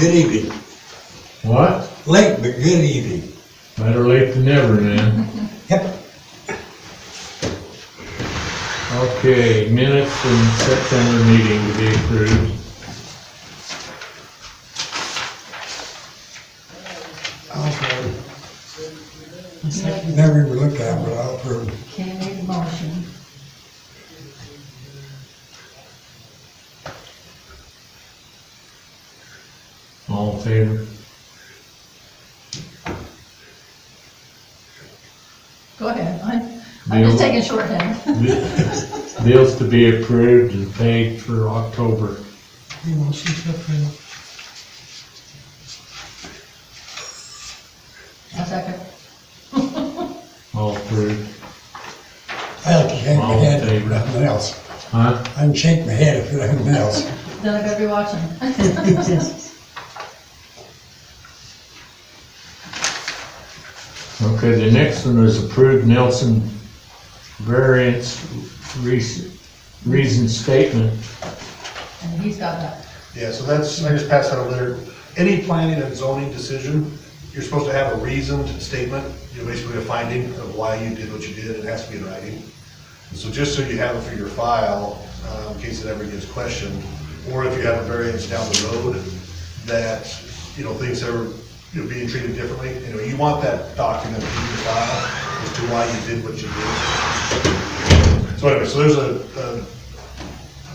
Good evening. What? Late, but good evening. Better late than never, man. Yep. Okay, minutes from September meeting to be approved. I'll, Okay, uh, never even looked at, it, but I'll approve. make a motion. All in favor? Go ahead, I'm, I'm just taking shorthand. Bi- Bills to be approved and paid for October. You want to see something? A second. All approved. I like to shake my All in head, if favor? nothing else. Huh? I can shake my head if nothing else. Then I better be watching. Okay, the next one is approved Nelson variance reason, reason statement. And he's got that. Yeah, so that's, I just passed out a letter. Any planning and zoning decision, you're supposed to have a reasoned statement, you know, basically a finding of why you did what you did, it has to be in writing. So just so you have it for your file, uh, in case it ever gets questioned, or if you have a variance down the road that, you know, things are, you know, being treated differently, you know, you want that document in your file as to why you did what you did. So anyway, so there's a, uh,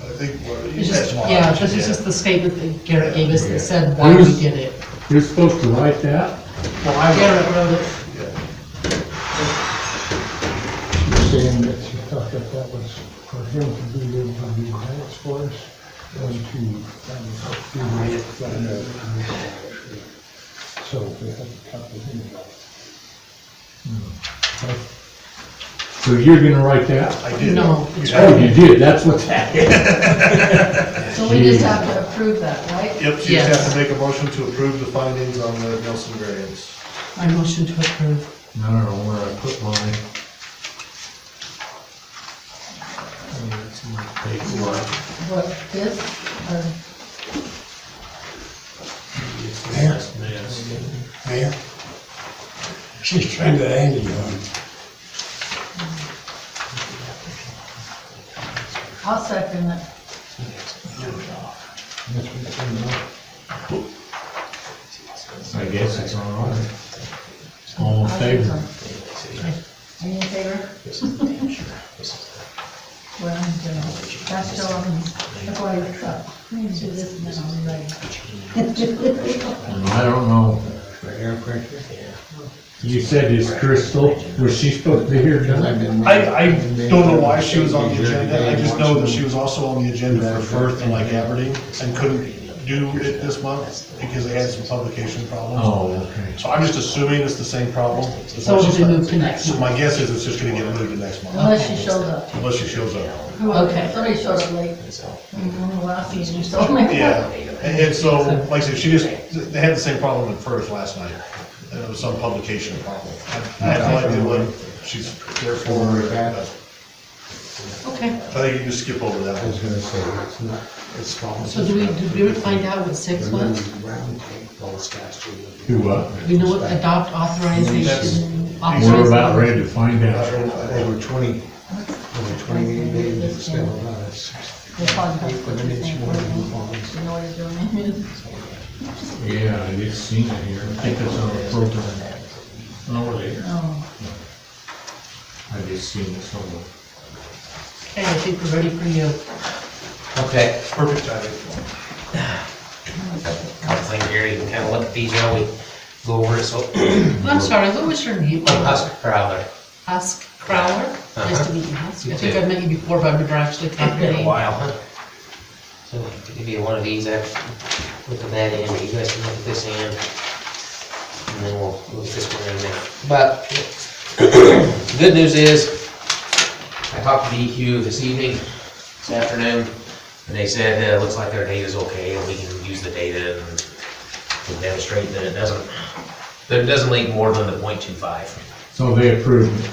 I think, what, you It's said just, tomorrow. yeah, aren't you? this is just the statement that Garrett gave us that said Yeah. why we did it. You're supposed to write that? Well, I Garrett wrote it. Yeah. You're saying that you thought that that was for him to be able to do grants for us, and to, um, do the work that, uh, So we had a couple of things. Hmm. So you're gonna write that? I did. No, You it's Oh, have- you did, that's what that is. So we just have to approve that, right? Yep, so you just have Yes. to make a motion to approve the findings on the Nelson variance. I motion to approve. I don't know where I put mine. Oh, that's my paperwork. What, this, or, It's Mayor? just this. Mayor? She's trying to hand you one. I'll second it. That's what it's all about. I guess it's all right. All in favor? Are you in favor? Well, I'm doing it. That's still, on. that's why it's up. Let me do this and then I'll be ready. And I don't know. You said it's Crystal, was she supposed to be here tonight? I, I don't know why she was on the agenda, I just know that she was also on the agenda for Firth and like Aberdeen, and couldn't do it this month, because they had some publication problems. Oh, okay. So I'm just assuming it's the same problem. So it'll be moved to next So month. my guess is it's just gonna get moved to next month, Uh-huh. Unless she shows up. unless she shows up. Who knows? Okay. Somebody showed up late. Mm, Last season, so maybe. Yeah, and and so, like I said, she just, they had the same problem at Firth last night, and it was some publication problem. I I have no idea what she's there for, uh, Okay, I think you can just skip over that I one. was gonna say, it's not, it's false. so do we, did we find out what six was? Do what? We know what adopt authorization. We're authorization- about ready to find out. Over twenty, over twenty-eight days, it's still about six, We'll find out what the you next think. morning, falls. You know what you're doing. Yeah, I just seen it here. I think it's on the program. Oh, there. Oh, I just seen it somewhere. Okay, I think we're ready for you. Okay, Perfect timing. couple things here, you can kind of look at these while we go over it, so, I'm sorry, what was your name? Husker Crowler, Husk Crowler? Nice to meet you, Husk. I think I've met you before, but I've never actually talked it's to been a you. while, huh? So, to give you one of these, I've looked at that end, but you guys can look at this end, and then we'll look at this one in a minute. But, the good news is, I talked to DEQ this evening, this afternoon, and they said, uh, it looks like their data's okay, and we can use the data and we'll demonstrate that it doesn't, that it doesn't leak more than the point two five. So they approved it.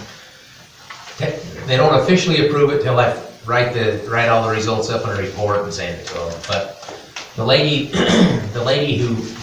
They they don't officially approve it till I write the, write all the results up in a report and send it to them. But the lady, the lady who